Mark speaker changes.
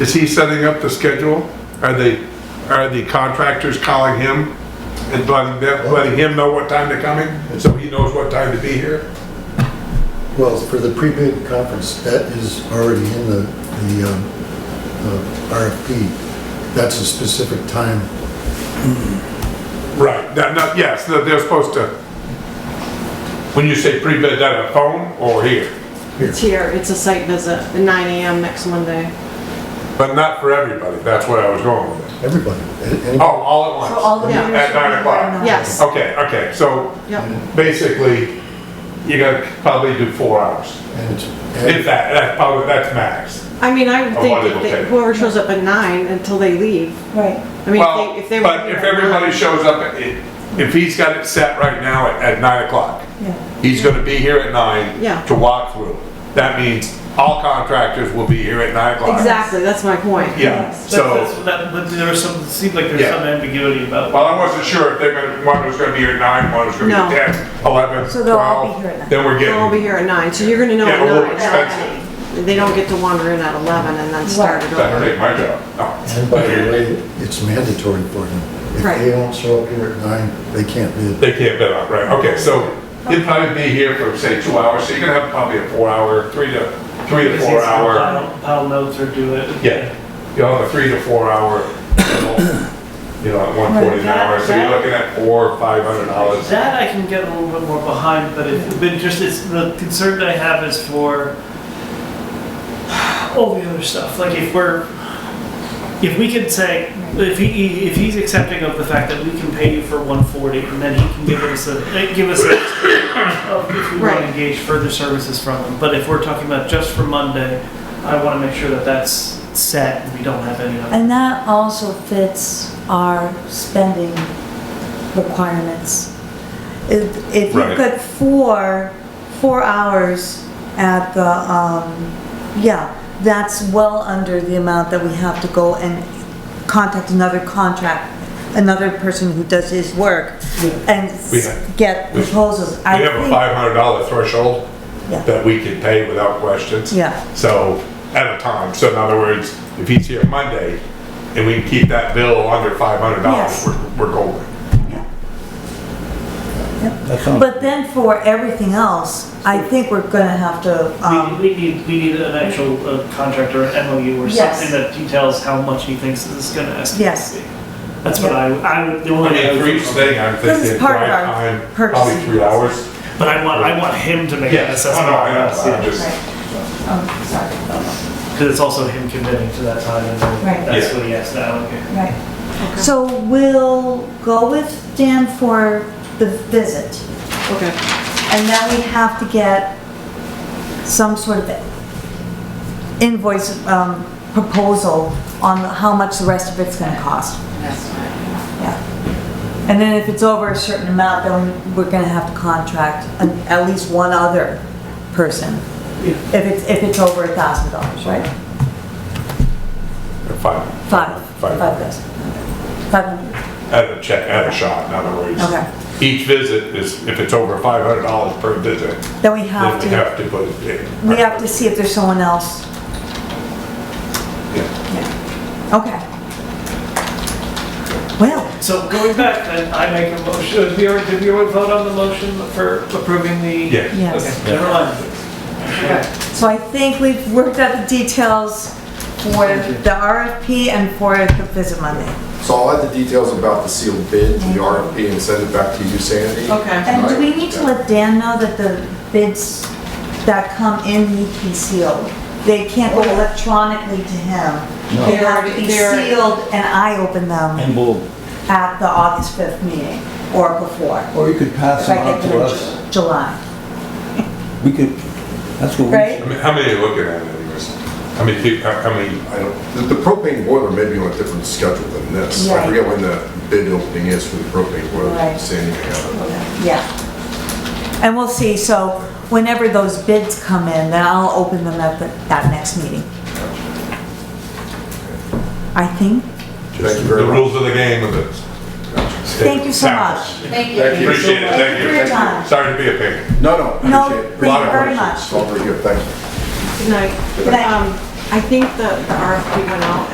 Speaker 1: Is he setting up the schedule? Are they, are the contractors calling him and letting them, letting him know what time they're coming? So he knows what time to be here?
Speaker 2: Well, for the pre-bid conference, that is already in the, the um, uh, RFP. That's a specific time.
Speaker 1: Right, that, not, yes, that they're supposed to, when you say pre-bid, that a phone or here?
Speaker 2: Here.
Speaker 3: It's here, it's a site visit, at 9 AM next Monday.
Speaker 1: But not for everybody, that's where I was going with it.
Speaker 2: Everybody. a- any-
Speaker 1: Oh, all at once?
Speaker 4: So all the
Speaker 3: Yeah.
Speaker 4: meters
Speaker 1: At nine
Speaker 4: are
Speaker 1: o'clock.
Speaker 4: on.
Speaker 3: Yes,
Speaker 1: Okay, okay, so
Speaker 3: yep,
Speaker 1: basically, you gotta probably do four hours.
Speaker 2: And it's,
Speaker 1: If
Speaker 2: and
Speaker 1: that, that's probably, that's max.
Speaker 3: I mean, I would
Speaker 1: Oh,
Speaker 3: think
Speaker 1: why they
Speaker 3: if they-
Speaker 1: okay.
Speaker 3: whoever shows up at 9 until they leave,
Speaker 4: Right,
Speaker 3: I mean,
Speaker 1: Well,
Speaker 3: if they, if they were
Speaker 1: but
Speaker 3: here
Speaker 1: if
Speaker 3: at
Speaker 1: everybody
Speaker 3: nine-
Speaker 1: shows up, at- i- if he's got it set right now at- at nine o'clock,
Speaker 4: yeah.
Speaker 1: he's gonna be here at nine
Speaker 3: Yeah.
Speaker 1: to walk through. That means all contractors will be here at nine o'clock.
Speaker 3: Exactly, that's my point.
Speaker 1: Yeah,
Speaker 4: Yes.
Speaker 1: so,
Speaker 5: That's- that- but there was some, it seemed like there's
Speaker 1: Yeah.
Speaker 5: some ambiguity about.
Speaker 1: well, I wasn't sure if they're gonna, one was gonna be here at nine, one was gonna be
Speaker 3: No.
Speaker 1: ten, eleven,
Speaker 4: So they'll all be
Speaker 1: twelve.
Speaker 4: here at nine.
Speaker 1: Then we're
Speaker 3: They'll all be
Speaker 1: getting,
Speaker 3: here at 9, so you're gonna know
Speaker 1: yeah,
Speaker 3: at
Speaker 1: a little
Speaker 3: 9.
Speaker 1: expensive.
Speaker 3: They don't get to wander in at 11 and then start it
Speaker 1: That
Speaker 3: over.
Speaker 1: ain't my job, no.
Speaker 2: and by the way, it's mandatory for them. If
Speaker 3: Right.
Speaker 2: they don't show up here at nine, they can't bid.
Speaker 1: They can't bid on, right, okay, so he'll probably be here for, say, two hours, so you're gonna have probably a four hour, three to, three to
Speaker 5: Because
Speaker 1: four
Speaker 5: it's the
Speaker 1: hour.
Speaker 5: pile- Pile notes or do it.
Speaker 1: Yeah, you have a three to four hour, you know, at one
Speaker 4: Right,
Speaker 1: forty an hour, so you're
Speaker 5: that-
Speaker 1: looking at four, or five hundred dollars.
Speaker 5: That I can get a little bit more behind, but if, but just, it's, the concern that I have is for all the other stuff, like if we're, if we could say, if he, if he's accepting of the fact that we can pay you for one forty, and then he can give us a, eh, give us a, of if we want
Speaker 3: Right.
Speaker 5: to engage further services from him, but if we're talking about just for Monday, I want to make sure that that's set, and we don't have any other.
Speaker 4: And that also fits our spending requirements. If, if
Speaker 1: Right.
Speaker 4: you've got four, four hours at the, um, yeah, that's well under the amount that we have to go and contact another contract, another person who does his work and
Speaker 1: We have-
Speaker 4: get
Speaker 1: we-
Speaker 4: proposals.
Speaker 1: We have a five hundred dollar threshold
Speaker 4: Yeah.
Speaker 1: that we can pay without questions.
Speaker 4: Yeah.
Speaker 1: So, at a time, so in other words, if he's here Monday and we can keep that bill under five hundred dollars,
Speaker 4: Yes.
Speaker 1: we're, we're golden.
Speaker 4: But then for everything else, I think we're gonna have to, um,
Speaker 5: We, we need, we need an actual uh, contract or an MOU or
Speaker 4: Yes.
Speaker 5: something that details how much he thinks this is gonna estimate.
Speaker 4: Yes.
Speaker 5: to be. That's what I, I, would- the
Speaker 1: I
Speaker 5: only.
Speaker 1: mean, for each thing, I'm
Speaker 4: This is
Speaker 1: thinking
Speaker 4: part of
Speaker 1: drive
Speaker 4: our
Speaker 1: time, probably
Speaker 4: purchasing
Speaker 1: three hours.
Speaker 5: But I want, I want him to make an
Speaker 1: Yes, oh
Speaker 5: assessment.
Speaker 1: no, I know,
Speaker 5: on
Speaker 1: I'm
Speaker 5: that,
Speaker 1: just,
Speaker 6: Oh, sorry.
Speaker 5: Cause it's also him committing to that time and then
Speaker 6: Right.
Speaker 5: that's
Speaker 1: Yeah.
Speaker 5: what he has to allocate.
Speaker 6: Right.
Speaker 4: so we'll go with Dan for the visit.
Speaker 3: Okay,
Speaker 4: And then we have to get some sort of invoice, um, proposal on how much the rest of it's gonna cost.
Speaker 6: That's fine.
Speaker 4: Yeah. And then if it's over a certain amount, then we're gonna have to contract an- at least one other person. If it's, if it's over a thousand dollars, right?
Speaker 1: five.
Speaker 4: Five,
Speaker 1: Five.
Speaker 4: five thousand. Five hundred,
Speaker 1: At a check, at a shot, in other words.
Speaker 4: Okay.
Speaker 1: Each visit is, if it's over five hundred dollars per visit,
Speaker 4: then we
Speaker 1: then
Speaker 4: have
Speaker 1: we
Speaker 4: to,
Speaker 1: have to put it in.
Speaker 4: we have to see if there's someone else.
Speaker 1: Yeah.
Speaker 4: Yeah. Okay. Well,
Speaker 5: So going back, then I make a motion, did we already, did we already vote on the motion for approving the?
Speaker 1: Yeah.
Speaker 4: yes.
Speaker 5: Okay, never mind.
Speaker 4: So I think we've worked out the details for the RFP and for the visit Monday.
Speaker 7: So I'll add the details about the sealed bid, the RFP, and send it back to you, Sandy.
Speaker 3: okay.
Speaker 4: And do we need to let Dan know that the bids that come in need to be sealed? They can't go electronically to him.
Speaker 2: No.
Speaker 4: They have to be
Speaker 3: They're- they're-
Speaker 4: sealed and I open them
Speaker 8: And we'll,
Speaker 4: at the August 5th meeting or before.
Speaker 8: or you could pass
Speaker 4: If
Speaker 8: them
Speaker 4: I
Speaker 8: on
Speaker 4: get
Speaker 8: to
Speaker 4: them in
Speaker 8: us.
Speaker 4: Ju- July,
Speaker 8: We could, that's what we.
Speaker 4: right?
Speaker 1: I mean, how many are you looking at anyways? How many, peop- how how many,
Speaker 7: I don't- The the propane boiler may be on a different schedule than this. I
Speaker 4: Right.
Speaker 7: forget when the bid opening is for the propane boiler,
Speaker 4: Right.
Speaker 7: Sandy may have it.
Speaker 4: Yeah. And we'll see, so whenever those bids come in, then I'll open them at the, that next meeting. I think.
Speaker 7: Thank you
Speaker 1: the
Speaker 7: very much.
Speaker 1: rules of the game of it.
Speaker 4: Thank you so much.
Speaker 6: Thank you.
Speaker 7: Thank you.
Speaker 1: Appreciate it,
Speaker 4: Thank
Speaker 1: thank
Speaker 4: you for your time.
Speaker 1: you. Sorry to be a pain.
Speaker 7: No, no.
Speaker 4: No,
Speaker 7: appreciate it.
Speaker 4: thank
Speaker 1: you
Speaker 7: A lot of
Speaker 4: very
Speaker 7: questions.
Speaker 4: much.
Speaker 7: It's all very good, thank you.
Speaker 3: Good night.
Speaker 4: Good night.
Speaker 3: Um, I think the the RFP went out